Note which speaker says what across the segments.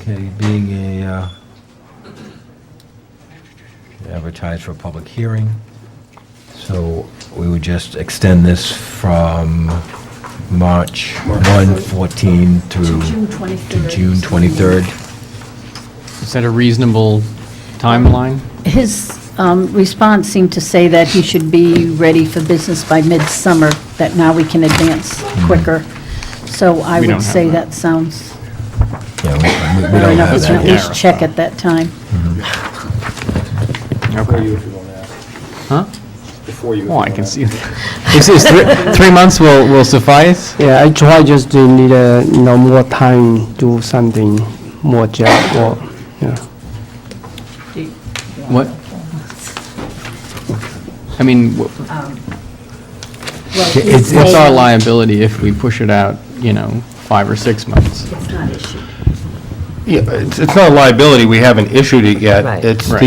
Speaker 1: committee being a, uh, advertised for a public hearing. So we would just extend this from March 1, 14 through...
Speaker 2: To June
Speaker 1: To
Speaker 2: 23rd.
Speaker 1: June 23rd.
Speaker 3: Is that a reasonable timeline?
Speaker 2: His um, response seemed to say that he should be ready for business by midsummer, that now we can advance quicker. So I
Speaker 3: Hmm. We don't
Speaker 2: would
Speaker 3: have
Speaker 2: say
Speaker 3: that.
Speaker 2: that sounds,
Speaker 1: Yeah, we- we- we
Speaker 2: fair
Speaker 1: don't
Speaker 2: enough.
Speaker 1: have
Speaker 2: we
Speaker 1: that
Speaker 2: can at
Speaker 1: yet.
Speaker 2: least check at that time.
Speaker 4: Before
Speaker 3: Okay.
Speaker 4: you, if you want to ask.
Speaker 3: Huh?
Speaker 4: Before you. if you
Speaker 3: Oh, I
Speaker 4: wanna
Speaker 3: can
Speaker 4: ask.
Speaker 3: see. Is, is three, three months will, will suffice?
Speaker 5: Yeah, I try just to need a, you know, more time, do something more job or, yeah.
Speaker 3: What? I mean, wh-
Speaker 1: It's-
Speaker 3: what's our liability if we push it out, you know, five or six months?
Speaker 6: Yeah, it's, it's not a liability, we haven't issued it yet.
Speaker 7: Right.
Speaker 6: It's
Speaker 3: Right.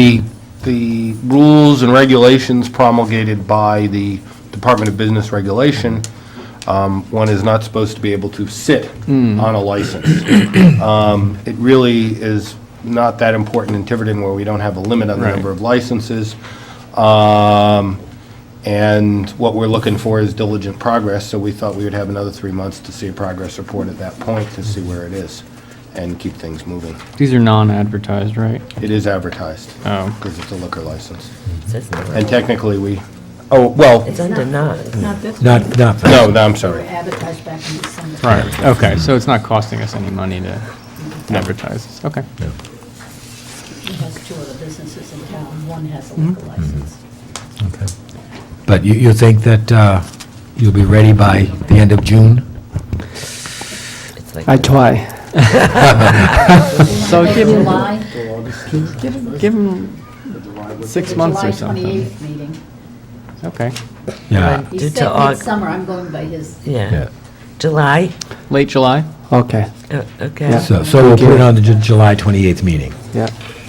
Speaker 6: the, the rules and regulations promulgated by the Department of Business Regulation. Um, One is not supposed to be able to sit
Speaker 3: Hmm.
Speaker 6: on a license. Um, It really is not that important in Tiverton where we don't have a limit on the
Speaker 3: Right.
Speaker 6: number of licenses. Um, And what we're looking for is diligent progress, so we thought we would have another three months to see a progress report at that point to see where it is and keep things moving.
Speaker 3: These are non-advertised, right?
Speaker 6: It is advertised.
Speaker 3: Oh.
Speaker 6: Because it's a liquor license.
Speaker 7: It says no.
Speaker 6: And technically, we, oh, well,
Speaker 7: It's under nine.
Speaker 2: Not this
Speaker 1: Not, not, for-
Speaker 6: no, no, I'm sorry.
Speaker 2: advertised back in December.
Speaker 3: Right, okay, so it's not costing us any money to advertise this, okay.
Speaker 2: He has two other businesses in town, one has a
Speaker 3: Hmm.
Speaker 2: liquor license.
Speaker 1: okay. But you, you think that uh, you'll be ready by the end of June?
Speaker 7: It's like
Speaker 5: I try.
Speaker 3: So give them,
Speaker 2: July,
Speaker 3: give them six months
Speaker 2: July
Speaker 3: or something. Uh,
Speaker 2: 28th meeting.
Speaker 3: Okay,
Speaker 1: Yeah,
Speaker 2: He
Speaker 7: Due to
Speaker 2: said
Speaker 7: Aug-
Speaker 2: midsummer, I'm going by his
Speaker 1: yeah.
Speaker 7: Yeah. July?
Speaker 3: late July?
Speaker 5: Okay,
Speaker 7: Oh, Okay.
Speaker 1: So, so we'll put it on the Ju- July 28th meeting.
Speaker 5: yeah.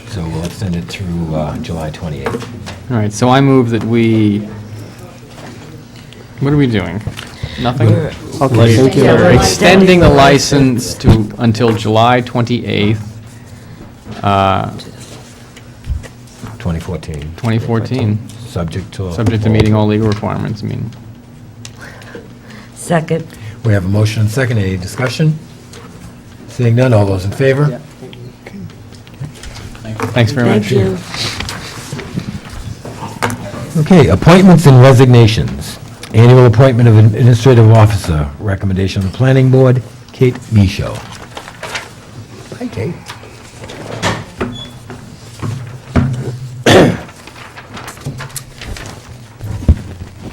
Speaker 1: So we'll extend it through uh, July 28th.
Speaker 3: All right, so I move that we, what are we doing? Nothing?
Speaker 5: Okay, thank you.
Speaker 3: We're
Speaker 2: July
Speaker 3: extending the
Speaker 2: 31st.
Speaker 3: license to, until July 28th, uh,
Speaker 1: 2014,
Speaker 3: 2014,
Speaker 1: subject to...
Speaker 3: subject to meeting all legal requirements, I mean.
Speaker 7: Second,
Speaker 1: We have a motion and second, any discussion? Seeing none, all those in favor?
Speaker 3: Thanks very much.
Speaker 7: thank you.
Speaker 1: Okay, appointments and resignations. Annual appointment of administrative officer, recommendation of the planning board, Kate Micho. Hi, Kate.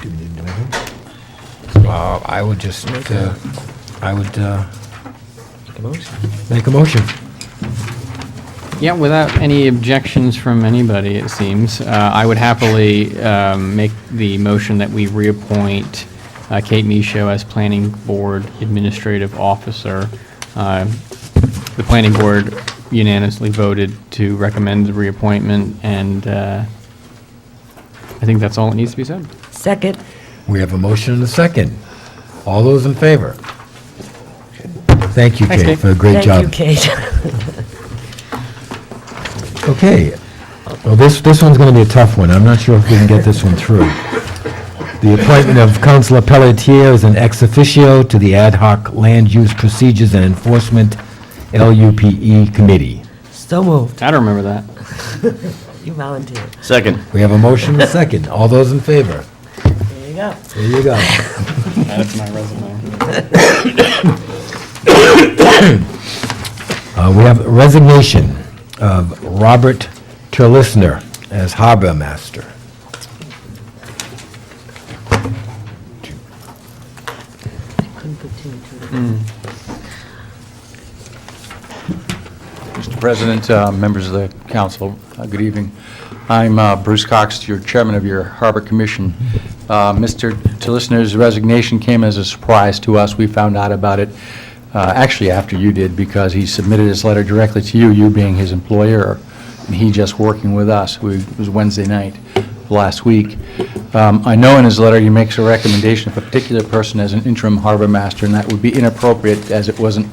Speaker 1: Do we need to do anything? Uh, I would just, uh, I would uh, make a motion.
Speaker 3: Yeah, without any objections from anybody, it seems, uh, I would happily um, make the motion that we reappoint uh, Kate Micho as Planning Board Administrative Officer. Uh, The Planning Board unanimously voted to recommend the reappointment, and uh, I think that's all that needs to be said.
Speaker 7: Second,
Speaker 1: We have a motion and a second. All those in favor? Thank you,
Speaker 3: Thanks,
Speaker 1: Kate,
Speaker 3: Kate.
Speaker 1: for a great
Speaker 7: thank you,
Speaker 1: job.
Speaker 7: Kate.
Speaker 1: Okay. Well, this, this one's going to be a tough one. I'm not sure if we can get this one through. The appointment of Councilor Pelletier as an ex officio to the Ad hoc Land Use Procedures and Enforcement LUPE E Committee.
Speaker 7: So moved.
Speaker 3: I don't remember that.
Speaker 7: You volunteered.
Speaker 8: Second.
Speaker 1: We have a motion and a second. All those in favor?
Speaker 7: There you go.
Speaker 1: There you go.
Speaker 3: That's my resume.
Speaker 1: Uh, We have resignation of Robert Terlissner as harbor master.
Speaker 7: Couldn't put two and two together.
Speaker 9: Mr. President, uh, members of the council, uh, good evening. I'm uh, Bruce Cox, your chairman of your Harbor Commission. Uh, Mr. Tillisner's resignation came as a surprise to us. We found out about it, uh, actually after you did, because he submitted his letter directly to you, you being his employer, and he just working with us. We- It was Wednesday night of last week. Um, I know in his letter, he makes a recommendation of a particular person as an interim harbor master, and that would be inappropriate, as it wasn't